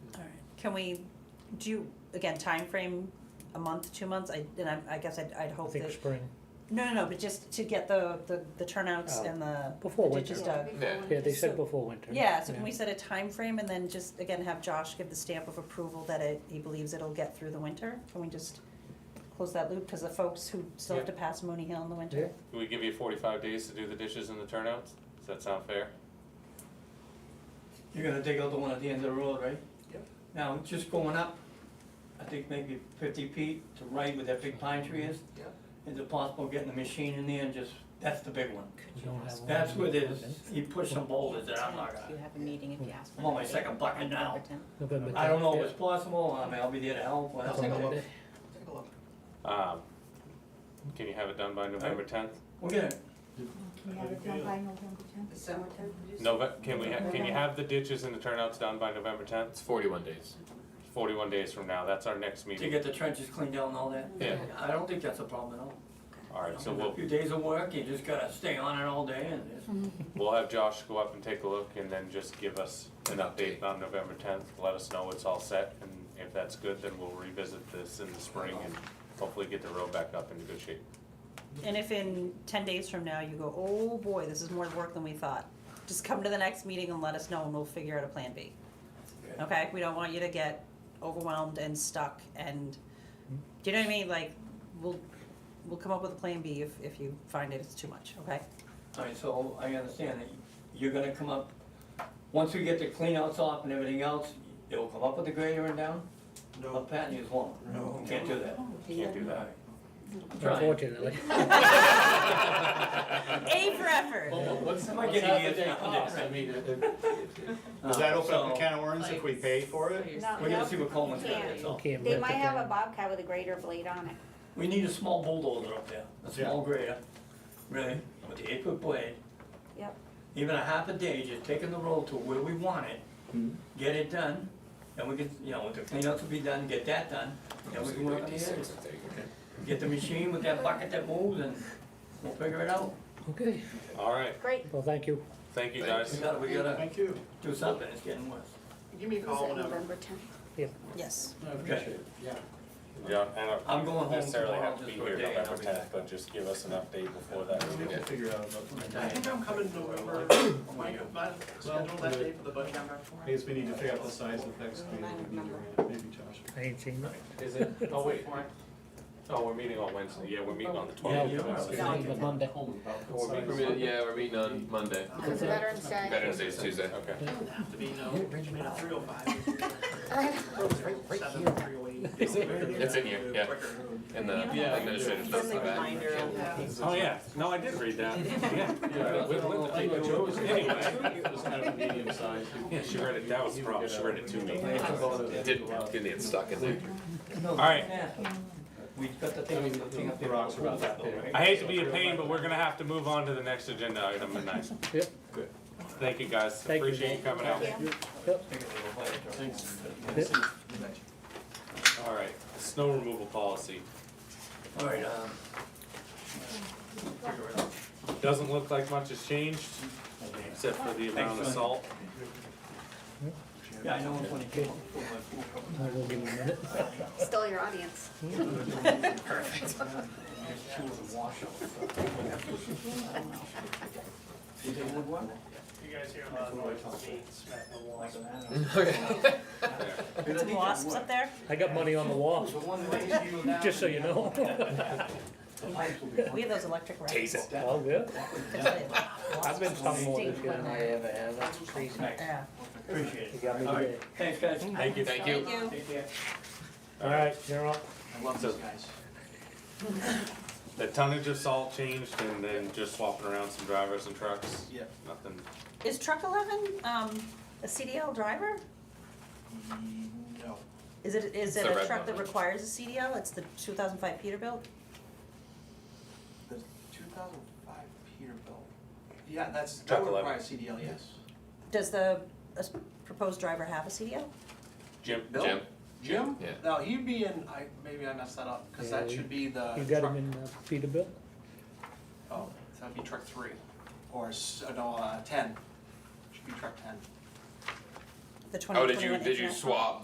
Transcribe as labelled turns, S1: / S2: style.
S1: Can we, do, you- again, time frame a month, two months, I, and I, I guess I'd, I'd
S2: I
S1: hope
S2: think
S1: that,
S2: spring,
S1: no, no, no, but just to get the, the, the turnouts
S2: Oh.
S1: and the
S2: before
S1: the uh,
S2: winter.
S1: ditches
S3: Yeah,
S1: dug.
S3: before
S2: Yeah, they
S3: winter.
S2: said
S1: So-
S2: before winter.
S1: Yeah, so can we set a time frame and then just, again, have Josh give the stamp of approval that it, he believes it'll get through the winter? Can we just close that loop, cause the folks who still have to pass Mooney Hill in the winter?
S4: We give you forty-five days to do the dishes and the turnouts? Does that sound fair?
S5: You're gonna dig out the one at the end of the road, right?
S2: Yep.
S5: Now, just going up, I think maybe fifty feet to right where that big pine tree is.
S3: Yep.
S5: Is it possible getting the machine in there and just, that's the big one.
S2: You don't have
S5: That's
S2: one.
S5: where there's, he pushed some boulders that I'm not
S3: You
S5: gonna,
S3: have a meeting if you ask for.
S5: I'm on my
S3: it.
S5: second bucket now.
S3: Number 10.
S2: November
S5: I don't know if
S2: tenth,
S5: it's possible, I mean, I'll be there to help,
S2: yeah.
S5: but
S6: Take a
S2: Something
S6: look.
S2: like
S6: Take a look.
S4: Um, can you have it done by November tenth?
S5: we'll get it.
S7: Can you have it done by November tenth?
S6: December tenth?
S4: Nove- can we, ha- can you have the ditches and the turnouts done by November tenth?
S8: It's 41 days.
S4: Forty-one days from now, that's our next
S5: To
S4: meeting.
S5: get the trenches cleaned out and all that.
S4: Yeah,
S5: I don't think that's a problem at all.
S4: alright, so
S5: I mean,
S4: we'll,
S5: A few days of work, you just gotta stay on it all day and it's.
S4: We'll have Josh go up and take a look and then just give us an update on November tenth, let us know it's all set, and if that's good, then we'll revisit this in the spring and hopefully get the road back up into good shape.
S1: And if in ten days from now you go, oh boy, this is more work than we thought, just come to the next meeting and let us know and we'll figure out a plan B.
S5: Okay.
S1: Okay, we don't want you to get overwhelmed and stuck and, do you know what I mean, like, we'll, we'll come up with a plan B if, if you find it it's too much, okay?
S5: Alright, so I understand that you're gonna come up, once we get the cleanouts off and everything else, you'll come up with the grader and down? No. Up pat and use one? No. You can't do that?
S4: Can't do that.
S5: Alright. I'm trying.
S2: Unfortunately.
S1: A for effort,
S8: what's,
S5: Am I what's getting half a years day now? cost? I
S8: mean,
S6: Does that open up
S5: Uh, So,
S6: a can of worms if we pay for it?
S5: We're gonna see what Coleman's got, that's all.
S2: Okay,
S7: They
S2: but
S7: might
S2: the-
S7: have a bobcat with a grater blade on it.
S5: We need a small bulldozer up there, a small
S6: Yeah.
S5: grader, really, with the eight foot blade.
S7: Yep.
S5: Even a half a day, just taking the roll to where we want it,
S4: Hmm.
S5: get it done, and we can, you know, the cleanouts will be done, get that done, then we can work on the others. Get the machine with that bucket that moves and we'll figure it out.
S2: Okay,
S4: Alright,
S7: Great.
S2: well, thank you.
S4: thank you
S8: Thank
S5: We
S4: guys.
S5: gotta, we gotta
S6: Thank you.
S5: do something, it's getting worse.
S6: Give me a call whenever.
S1: yes.
S5: Okay.
S4: Yeah, I don't
S5: I'm going home
S4: necessarily
S5: tomorrow
S4: have to be
S5: just for a
S4: here
S5: day and I'll
S4: November
S5: be
S4: tenth,
S5: back.
S4: but just give us an update before that.
S6: We'll
S8: Yeah.
S6: figure out about.
S5: I'm gonna
S6: I
S5: die.
S6: think I'm coming November,
S4: Oh
S6: Mike, but schedule that day for the budget. I guess we need to figure out the size of next meeting, maybe Josh.
S2: I ain't seen that.
S4: Is it, oh wait, oh, we're meeting on Wednesday, yeah, we're meeting on the
S5: Yeah, you're
S4: twelfth.
S5: right.
S2: But Monday.
S8: Yeah, we're meeting on Monday.
S2: Because
S7: Veterans Day.
S8: Veterans Day is Tuesday.
S4: Okay,
S6: Doesn't have to be, no, three oh
S8: It's in here, yeah. In the
S4: Yeah.
S8: administrative stuff.
S1: Friendly reminder.
S4: oh yeah, no, I did read that, yeah.
S6: Yeah.
S4: With Linda. Anyway.
S6: medium size.
S4: Yeah, she read it, that was wrong, she read it to me.
S8: Didn't, didn't get stuck in there.
S5: All
S4: right.
S5: We've got the thing, the thing up there.
S6: Rocks are about that big, right?
S4: I hate to be a pain, but we're gonna have to move on to the next agenda item at nine.
S2: Yep.
S4: Good. Thank you guys,
S2: Thank you.
S4: appreciate you coming out.
S6: Thanks.
S4: Alright, snow removal policy.
S5: All right, um. figure it out.
S4: Doesn't look like much has changed, except for the amount of salt.
S5: Yeah, I know it's when it came up.
S2: I will give you a minute.
S7: Still your audience.
S5: You think it would work?
S6: You guys hear
S1: Some wasps up there?
S2: I got money on the wall,
S5: The one way you now-
S2: just so you know.
S5: The pipes will be
S1: We have those electric rats.
S2: All good.
S1: Yeah.
S2: I've been stung more this year than I ever have. That's crazy.
S5: Appreciate
S2: You
S5: it.
S2: got me
S5: All
S2: today.
S5: right, thanks, guys.
S4: Thank you.
S8: Thank you.
S1: Thank you.
S5: Take care.
S2: All right, you're up.
S6: I love those guys.
S4: The tonnage of salt changed and then just swapping around some drivers and trucks.
S6: Yeah.
S4: Nothing,
S1: Is truck eleven, um, a CDL driver?
S6: Mm, No.
S1: Is it, is
S8: It's
S1: it
S8: the
S1: a
S8: red
S1: truck
S8: one.
S1: that requires a CDL? It's the two thousand five Peterbilt?
S6: The two thousand five Peterbilt. Yeah, that's,
S4: Truck
S6: that would
S4: eleven.
S6: require CDL, yes.
S1: Does the uh, s- proposed driver have a CDL?
S8: Oh,
S4: Jim,
S6: Bill?
S8: Jim.
S6: Jim?
S8: Yeah.
S6: No, he'd be in, I, maybe I messed that up, cause
S2: Yeah,
S6: that
S2: you-
S6: should be the.
S2: You got
S6: truck-
S2: him in uh, Peterbilt?
S6: Oh, so that'd be truck three, or, s- uh, no, uh, ten, should be truck ten.
S1: The twenty
S8: Oh, did
S1: twenty-one
S8: you, did you
S1: International-
S8: swap